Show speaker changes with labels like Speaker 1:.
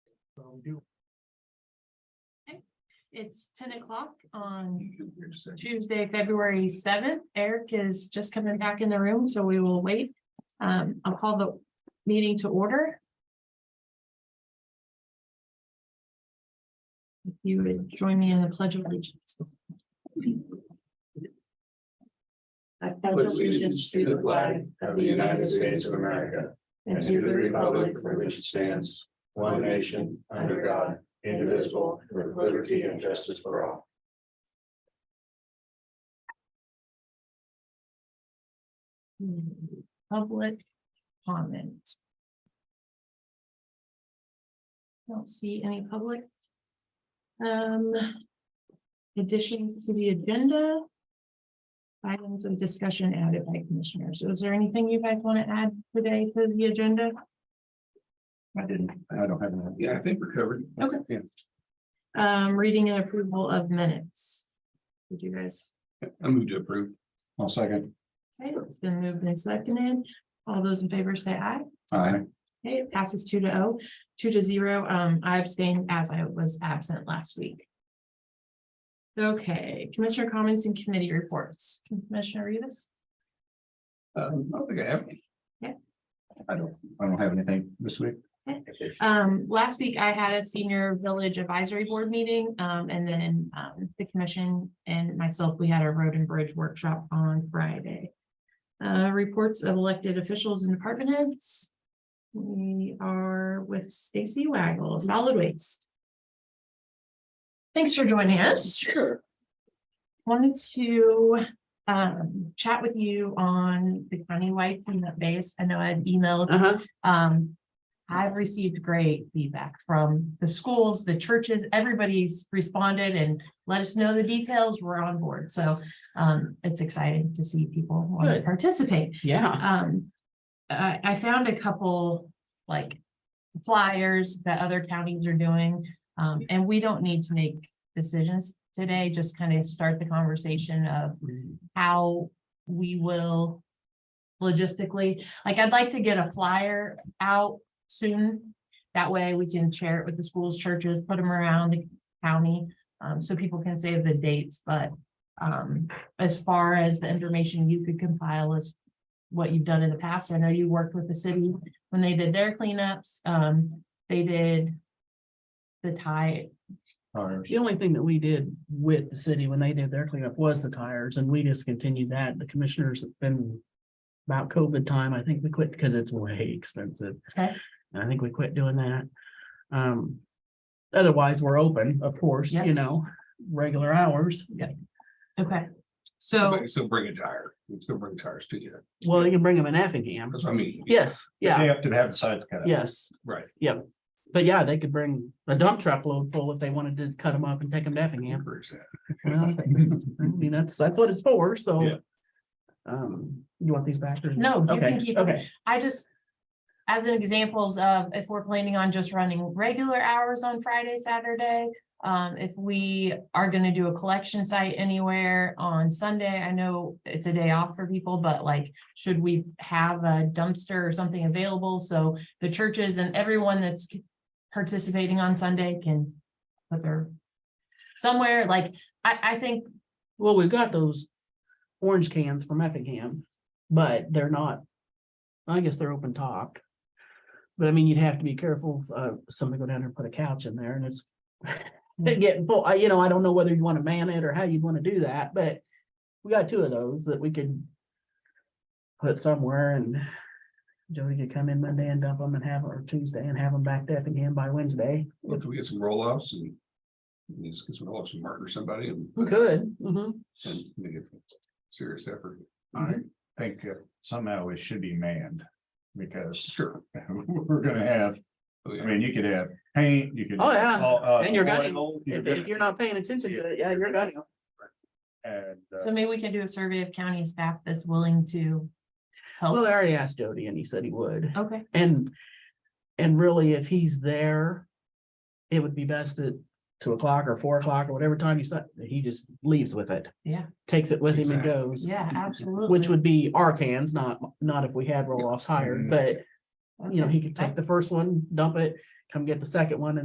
Speaker 1: all we do.
Speaker 2: It's ten o'clock on Tuesday, February seventh. Eric is just coming back in the room, so we will wait. Um, I'll call the meeting to order. If you would join me in the pledge of allegiance.
Speaker 3: I pledge allegiance to the flag of the United States of America and to the republic for which it stands, one nation, under God, indivisible, with liberty and justice for all.
Speaker 2: Public comment. Don't see any public. Um. Additions to the agenda. Items of discussion added by commissioners. Is there anything you guys want to add today to the agenda?
Speaker 1: I didn't, I don't have any. Yeah, I think we're covered.
Speaker 2: Okay.
Speaker 1: Yeah.
Speaker 2: Um, reading and approval of minutes. Did you guys?
Speaker 1: I move to approve. I'll second.
Speaker 2: Okay, it's been moved and seconded. All those in favor say aye.
Speaker 1: Aye.
Speaker 2: Okay, it passes two to oh, two to zero. Um, I abstained as I was absent last week. Okay, Commissioner comments and committee reports. Commissioner Rivas?
Speaker 1: Um, I don't think I have any.
Speaker 2: Yeah.
Speaker 1: I don't, I don't have anything this week.
Speaker 2: Um, last week I had a senior village advisory board meeting, um, and then, um, the commission and myself, we had a road and bridge workshop on Friday. Uh, reports of elected officials and department heads. We are with Stacy Waggle, Solid Waste. Thanks for joining us.
Speaker 3: Sure.
Speaker 2: Wanted to, um, chat with you on the countywide cleanup base. I know I had emailed
Speaker 3: Uh-huh.
Speaker 2: um, I've received great feedback from the schools, the churches, everybody's responded and let us know the details. We're on board. So um, it's exciting to see people want to
Speaker 3: Good.
Speaker 2: participate.
Speaker 3: Yeah.
Speaker 2: Um, I, I found a couple like flyers that other counties are doing. Um, and we don't need to make decisions today, just kind of start the conversation of how we will logistically, like I'd like to get a flyer out soon. That way we can share it with the schools, churches, put them around the county, um, so people can save the dates, but um, as far as the information you could compile is what you've done in the past, I know you worked with the city when they did their cleanups, um, they did the tie,
Speaker 1: Ours.
Speaker 4: The only thing that we did with the city when they did their cleanup was the tires and we discontinued that. The commissioners have been. About COVID time, I think we quit because it's way expensive.
Speaker 2: Okay.
Speaker 4: And I think we quit doing that. Um. Otherwise, we're open, of course,
Speaker 2: Yeah.
Speaker 4: you know, regular hours. Yeah.
Speaker 2: okay, so.
Speaker 5: But Still bring a tire, we still bring tires to you,
Speaker 4: Well, you can bring them in Effingham.
Speaker 5: that's what I mean.
Speaker 4: Yes, yeah,
Speaker 1: They have to have the sides cut out.
Speaker 4: yes.
Speaker 5: Right.
Speaker 4: Yep. But yeah, they could bring a dump truck load full if they wanted to cut them up and take them to Effingham.
Speaker 5: Encourage that.
Speaker 4: Well, I mean, that's, that's what it's for, so.
Speaker 5: Yeah.
Speaker 4: Um, you want these back? or-
Speaker 2: No, you can
Speaker 4: Okay,
Speaker 2: keep 'em.
Speaker 4: okay,
Speaker 2: I just. As an examples of if we're planning on just running regular hours on Friday, Saturday. Um, if we are gonna do a collection site anywhere on Sunday, I know it's a day off for people, but like. Should we have a dumpster or something available? So the churches and everyone that's participating on Sunday can. Put their. Somewhere like, I, I think,
Speaker 4: well, we've got those orange cans from Effingham, but they're not, I guess they're open top. But I mean, you'd have to be careful, if, uh, somebody go down there and put a couch in there and it's they get, full. I, you know, I don't know whether you want to man it or how you'd want to do that, but we got two of those that we could put somewhere and Joey could come in Monday and dump them and have, or Tuesday and have them back to Effingham by Wednesday.
Speaker 5: Well, If we get some roll offs and. we Just get some roll offs and mark or somebody and.
Speaker 4: We could, mhm.
Speaker 5: And make it serious effort. I
Speaker 1: think uh, somehow it should be manned. Because
Speaker 5: sure.
Speaker 1: we're gonna have,
Speaker 5: Oh,
Speaker 1: I
Speaker 5: yeah.
Speaker 1: mean, you could have paint, you could.
Speaker 4: Oh, yeah.
Speaker 1: all, uh,
Speaker 4: And you're gonna-
Speaker 1: oil,
Speaker 4: If, if you're not paying attention to it, yeah, you're gonna,
Speaker 1: And, uh,
Speaker 2: so maybe we can do a survey of county staff that's willing to.
Speaker 4: well,
Speaker 2: Help,
Speaker 4: I already asked Jody and he said he would,
Speaker 2: okay,
Speaker 4: and, and really, if he's there. It would be best at two o'clock or four o'clock or whatever time you said, he just leaves with it.
Speaker 2: Yeah.
Speaker 4: Takes it with him and
Speaker 5: Exactly.
Speaker 4: goes,
Speaker 2: yeah, absolutely.
Speaker 4: which would be our cans, not, not if we had roll-offs hired,
Speaker 1: Mhm.
Speaker 4: but, you know, he could
Speaker 2: Okay.
Speaker 4: take the first one, dump it, come get the second one, and